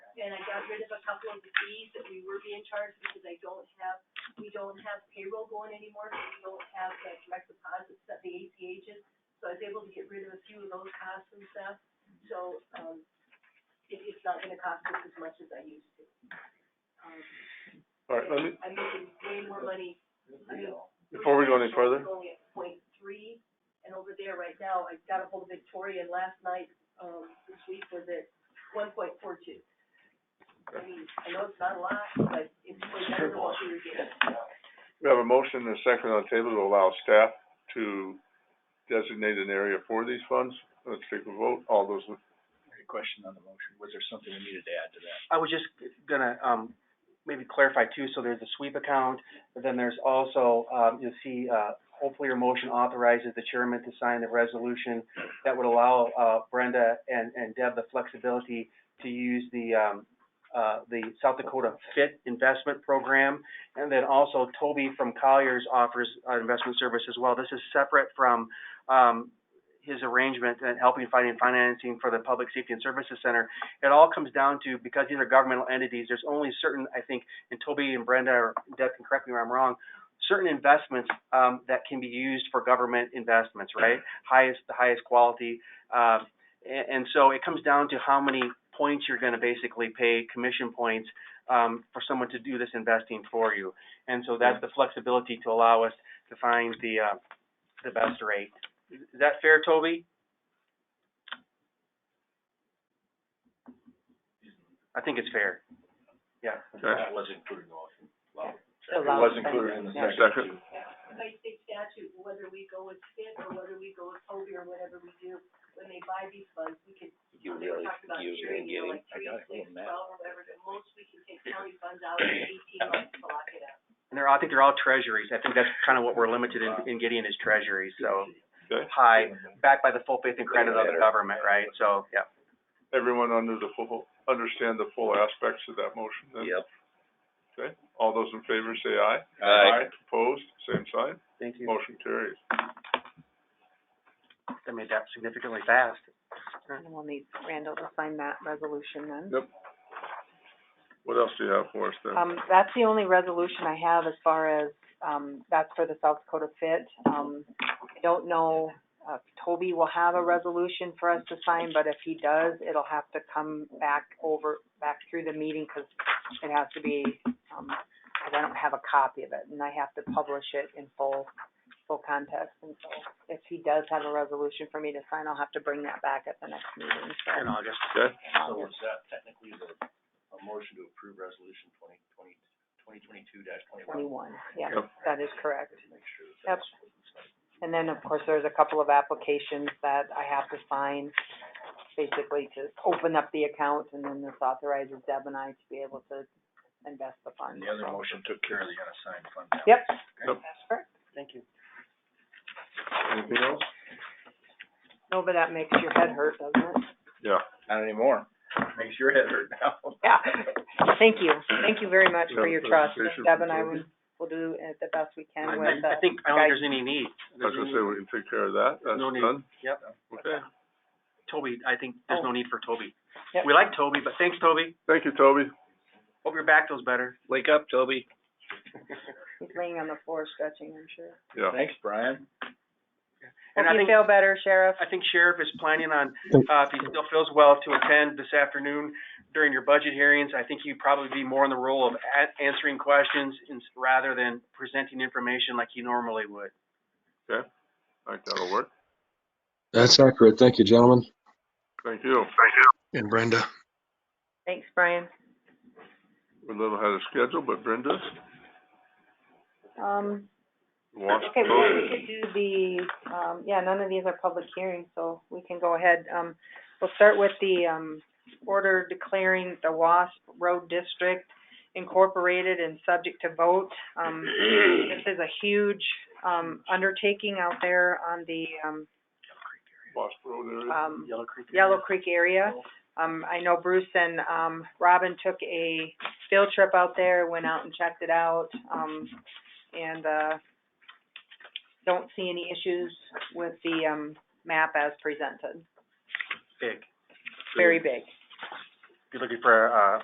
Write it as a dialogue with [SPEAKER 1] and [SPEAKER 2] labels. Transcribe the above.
[SPEAKER 1] and I got rid of a couple of the fees that we were being charged because I don't have, we don't have payroll going anymore, so we don't have that direct deposits that the ACH is. So I was able to get rid of a few of those costs and stuff, so, um, it, it's not gonna cost us as much as I used to. Um,
[SPEAKER 2] All right, let me,
[SPEAKER 1] I'm making way more money, I mean,
[SPEAKER 2] before we go any further,
[SPEAKER 1] it's Only at point three, and over there right now, I got ahold of Victoria, and last night, um, this week was at one point four two. I mean, I know it's not a lot, but it's way better than what we were getting.
[SPEAKER 2] we have a motion and a second on the table to allow staff to designate an area for these funds. Let's take a vote. All those, in-
[SPEAKER 3] a question on the motion, was there something we needed to add to that?
[SPEAKER 4] I was just gonna, um, maybe clarify too, so there's a sweep account, but then there's also, um, you'll see, uh, hopefully your motion authorizes the chairman to sign the resolution that would allow, uh, Brenda and, and Deb the flexibility to use the, um, uh, the South Dakota Fit Investment Program. And then also Toby from Colliers offers, uh, investment service as well. This is separate from, um, his arrangement and helping finding financing for the Public Safety and Services Center it all comes down to, because these are governmental entities, there's only certain, I think, and Toby and Brenda or Deb can correct me where I'm wrong, certain investments, um, that can be used for government investments, right? Highest, the highest quality, um, and, and so it comes down to how many points you're gonna basically pay, commission points, um, for someone to do this investing for you. And so that's the flexibility to allow us to find the, uh, the best rate. Is is that fair, Toby? I think it's fair.
[SPEAKER 2] okay,
[SPEAKER 3] That was included in the motion.
[SPEAKER 2] it was included in the second.
[SPEAKER 1] By state statute, whether we go with Skip or whether we go with Toby or whatever we do, when they buy these funds, we can,
[SPEAKER 3] You
[SPEAKER 1] they were talking about sharing, you know, like
[SPEAKER 3] I
[SPEAKER 1] three,
[SPEAKER 3] got it,
[SPEAKER 1] six,
[SPEAKER 3] little map.
[SPEAKER 1] twelve, or whatever, the most we can take county funds out in eighteen months to lock it up.
[SPEAKER 4] And they're, I think they're all treasuries. I think that's kind of what we're limited in, in getting is treasuries, so
[SPEAKER 2] Okay,
[SPEAKER 4] high, backed by the full faith and credit of the government, right? So, yeah.
[SPEAKER 2] everyone under the full, understand the full aspects of that motion then?
[SPEAKER 3] Yep.
[SPEAKER 2] Okay, all those in favor say aye.
[SPEAKER 3] Aye.
[SPEAKER 2] Opposed, same sign,
[SPEAKER 4] Thank you.
[SPEAKER 2] motion carries.
[SPEAKER 4] I made that significantly fast.
[SPEAKER 5] And we'll need Randall to sign that resolution then.
[SPEAKER 2] What else do you have for us then?
[SPEAKER 5] Um, that's the only resolution I have as far as, um, that's for the South Dakota Fit. Um, I don't know, uh, if Toby will have a resolution for us to sign, but if he does, it'll have to come back over, back through the meeting, 'cause it has to be, um, 'cause I don't have a copy of it, and I have to publish it in full, full context. And so if he does have a resolution for me to sign, I'll have to bring that back at the next meeting, so.
[SPEAKER 4] In August.
[SPEAKER 2] Okay,
[SPEAKER 3] So
[SPEAKER 5] um,
[SPEAKER 3] is that technically the, a motion to approve resolution twenty twenty, twenty twenty-two dash twenty-one?
[SPEAKER 5] twenty-one, yeah,
[SPEAKER 2] Yep.
[SPEAKER 5] that is correct.
[SPEAKER 3] Make sure that
[SPEAKER 5] Yep.
[SPEAKER 3] that's.
[SPEAKER 5] And then, of course, there's a couple of applications that I have to sign, basically to open up the account, and then this authorizes Deb and I to be able to invest the
[SPEAKER 3] And
[SPEAKER 5] funds.
[SPEAKER 3] the other motion took care of the unassigned fund balance.
[SPEAKER 5] Yep,
[SPEAKER 2] Yep.
[SPEAKER 5] that's correct.
[SPEAKER 4] Thank you.
[SPEAKER 2] anything else?
[SPEAKER 5] No, but that makes your head hurt, doesn't it?
[SPEAKER 2] Yeah,
[SPEAKER 3] Not anymore. Makes your head hurt now.
[SPEAKER 5] Yeah. Thank you, thank you very much for
[SPEAKER 2] Yeah,
[SPEAKER 5] your trust,
[SPEAKER 2] presentation
[SPEAKER 5] and Deb and I
[SPEAKER 2] from
[SPEAKER 5] will, will do it the best we
[SPEAKER 4] I,
[SPEAKER 5] can
[SPEAKER 4] I-
[SPEAKER 5] with uh, the.
[SPEAKER 4] I think, I don't think there's any need.
[SPEAKER 2] I was gonna say, we can take care of that, that's
[SPEAKER 4] No need.
[SPEAKER 2] done,
[SPEAKER 4] Yep.
[SPEAKER 2] okay.
[SPEAKER 4] Toby, I think there's no need for Toby.
[SPEAKER 5] Oh. Yep.
[SPEAKER 4] We like Toby, but thanks, Toby.
[SPEAKER 2] Thank you, Toby.
[SPEAKER 4] Hope your back feels better.
[SPEAKER 3] Wake up, Toby.
[SPEAKER 5] He's laying on the floor stretching, I'm sure.
[SPEAKER 2] Yeah.
[SPEAKER 3] Thanks, Brian.
[SPEAKER 4] And
[SPEAKER 5] Hope
[SPEAKER 4] I
[SPEAKER 5] you
[SPEAKER 4] think,
[SPEAKER 5] feel better, Sheriff.
[SPEAKER 4] I think Sheriff is planning on, uh, if he still feels well, to attend this afternoon during your budget hearings. I think he'd probably be more in the role of a- answering questions ins- rather than presenting information like he normally would.
[SPEAKER 2] I think that'll work.
[SPEAKER 6] That's accurate. Thank you, gentlemen.
[SPEAKER 2] Thank you.
[SPEAKER 6] And Brenda.
[SPEAKER 5] Thanks, Brian.
[SPEAKER 2] We're a little ahead of schedule, but Brenda,
[SPEAKER 5] Um,
[SPEAKER 2] wash
[SPEAKER 5] Okay, well, we
[SPEAKER 2] clothes.
[SPEAKER 5] could do the, um, yeah, none of these are public hearings, so we can go ahead. Um, we'll start with the, um, order declaring the WASP Road District incorporated and subject to vote. Um, this is a huge, um, undertaking out there on the, um,
[SPEAKER 2] Wash road area.
[SPEAKER 5] um,
[SPEAKER 4] Yellow Creek.
[SPEAKER 5] Yellow Creek area. Um, I know Bruce and, um, Robin took a field trip out there, went out and checked it out, um, and, uh, don't see any issues with the, um, map as presented.
[SPEAKER 4] Big.
[SPEAKER 5] Very big.
[SPEAKER 4] If you're looking for, uh,